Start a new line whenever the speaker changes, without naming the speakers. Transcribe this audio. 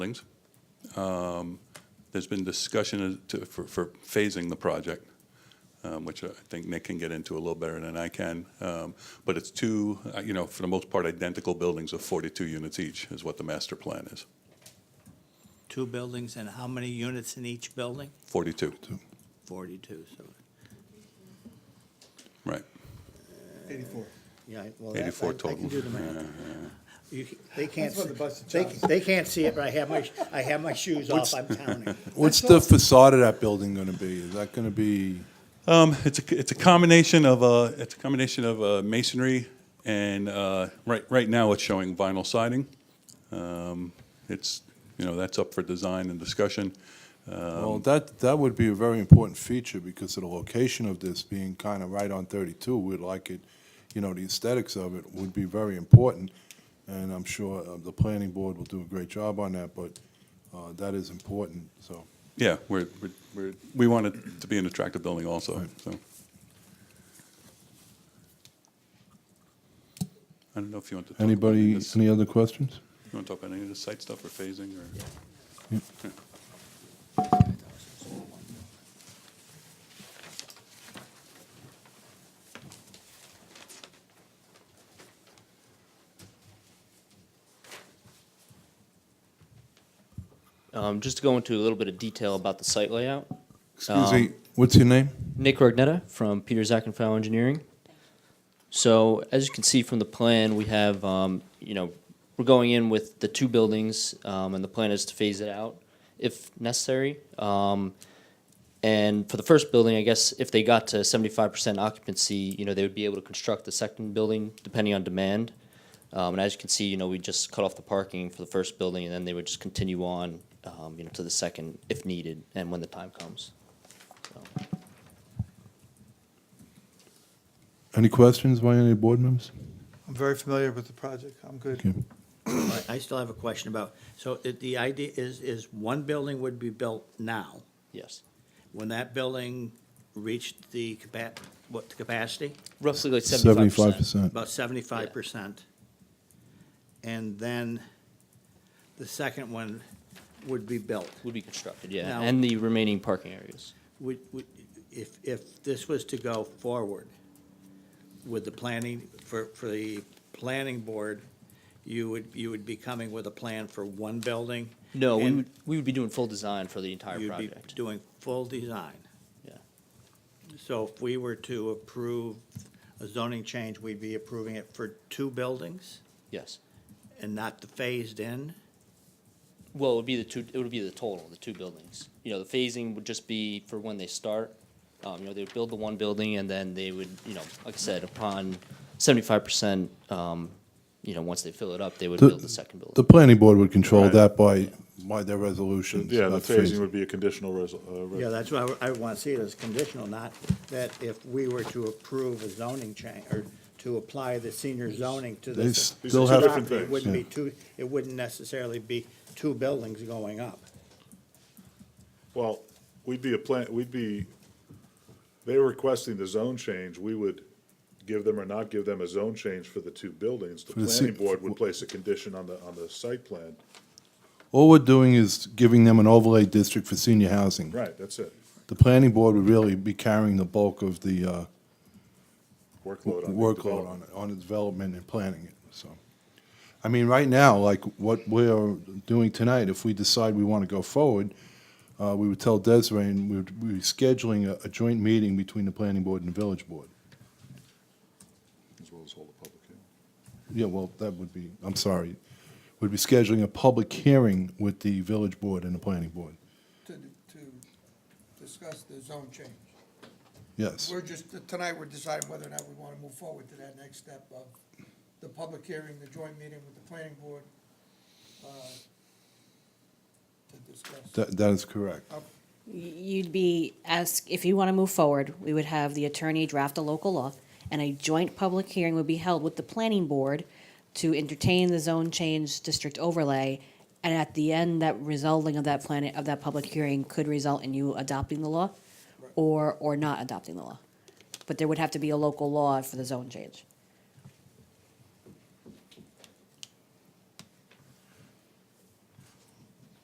buildings. Um, There's been discussion as to- for for phasing the project, um, which I think Nick can get into a little better than I can. Um, But it's two, uh, you know, for the most part, identical buildings of 42 units each is what the master plan is,
Two buildings and how many units in each building?
42,
Forty-two, so,
right,
84.
yeah, well, that-
84
I- I can
total.
do the math. You c- They can't,
That's what
see-
the bus is
they,
telling us.
they can't see it, but I have my, sh- I have my shoes off, I'm counting.
What's the facade of that building going to be? Is that going to be,
Um, It's a it's a combination of, uh, it's a combination of uh, masonry and, uh, right right now, it's showing vinyl siding. Um, It's, you know, that's up for design and discussion.
well, that, that would be a very important feature because of the location of this being kind of right on 32. We'd like it, you know, the aesthetics of it would be very important. And I'm sure uh, the planning board will do a great job on that, but uh, that is important, so.
Yeah, we're, we're- we're, we want it to be an attractive building also, so. I don't know if you want to. talk about any
Anybody,
of this- You
any other questions?
want to talk about any of the site stuff or phasing or?
Um, just to go into a little bit of detail about the site layout,
Excuse me, what's your name?
Nick Rognetta from Peter Zackenfau Engineering. So as you can see from the plan, we have, um, you know, we're going in with the two buildings, um, and the plan is to phase it out if necessary. Um, and for the first building, I guess if they got to seventy-five percent occupancy, you know, they would be able to construct the second building depending on demand. Um, and as you can see, you know, we just cut off the parking for the first building, and then they would just continue on, um, you know, to the second if needed and when the time comes.
Any questions by any board members?
I'm very familiar with the project. I'm good.
Okay.
I- I still have a question about, so it- the idea is, is one building would be built now.
Yes.
When that building reached the capa, what, the capacity?
Roughly like
Seventy-five
75%.
percent.
About seventy-five percent. And then the second one would be built.
Would be constructed, yeah,
Now-
and the remaining parking areas.
Would, would, if, if this was to go forward with the planning, for, for the planning board, you would, you would be coming with a plan for one building?
No, we
and
would, we would be doing full design for the entire
You'd be
project.
doing full design?
Yeah.
So if we were to approve a zoning change, we'd be approving it for two buildings
Yes.
and not the phased in?
Well, it would be the two, it would be the total, the two buildings. You know, the phasing would just be for when they start. Um, you know, they would build the one building and then they would, you know, like I said, upon seventy-five percent, um, you know, once they fill it up, they would
The-
build the second
The
building.
planning board would control
Right.
that by, by their resolutions.
Yeah, the
not
phasing would be a conditional res, uh,
Yeah,
res-
that's why I want to see it as conditional, not that if we were to approve a zoning change, or to apply the senior zoning to
They
this.
still
These are two
have.
different
property, It
things.
wouldn't be two, it wouldn't necessarily be two buildings going up.
well, we'd be a plan, we'd be, they were requesting the zone change, we would give them or not give them a zone change for the two buildings. The
the se-
planning board would place a condition on the, on the site plan.
All we're doing is giving them an overlay district for senior housing.
Right, that's it.
The planning board would really be carrying the bulk of the uh,
Workload on. the
workload
development.
on, it- on the development and planning it, so. I mean, right now, like what we're doing tonight, if we decide we want to go forward, uh, we would tell Desiree and we would be scheduling a, a joint meeting between the planning board and the village board.
As well as hold a public hearing.
Yeah, well, that would be, I'm sorry, would be scheduling a public hearing with the village board and the planning board,
to, to discuss the zone change.
yes.
We're just, tonight, we're deciding whether or not we want to move forward to that next step of the public hearing, the joint meeting with the planning board, uh, to discuss.
That, that is correct.
You'd be ask, if you want to move forward, we would have the attorney draft a local law, and a joint public hearing would be held with the planning board to entertain the zone change district overlay. And at the end, that resulting of that planet, of that public hearing could result in you adopting the law or, or not adopting the law. But there would have to be a local law for the zone change.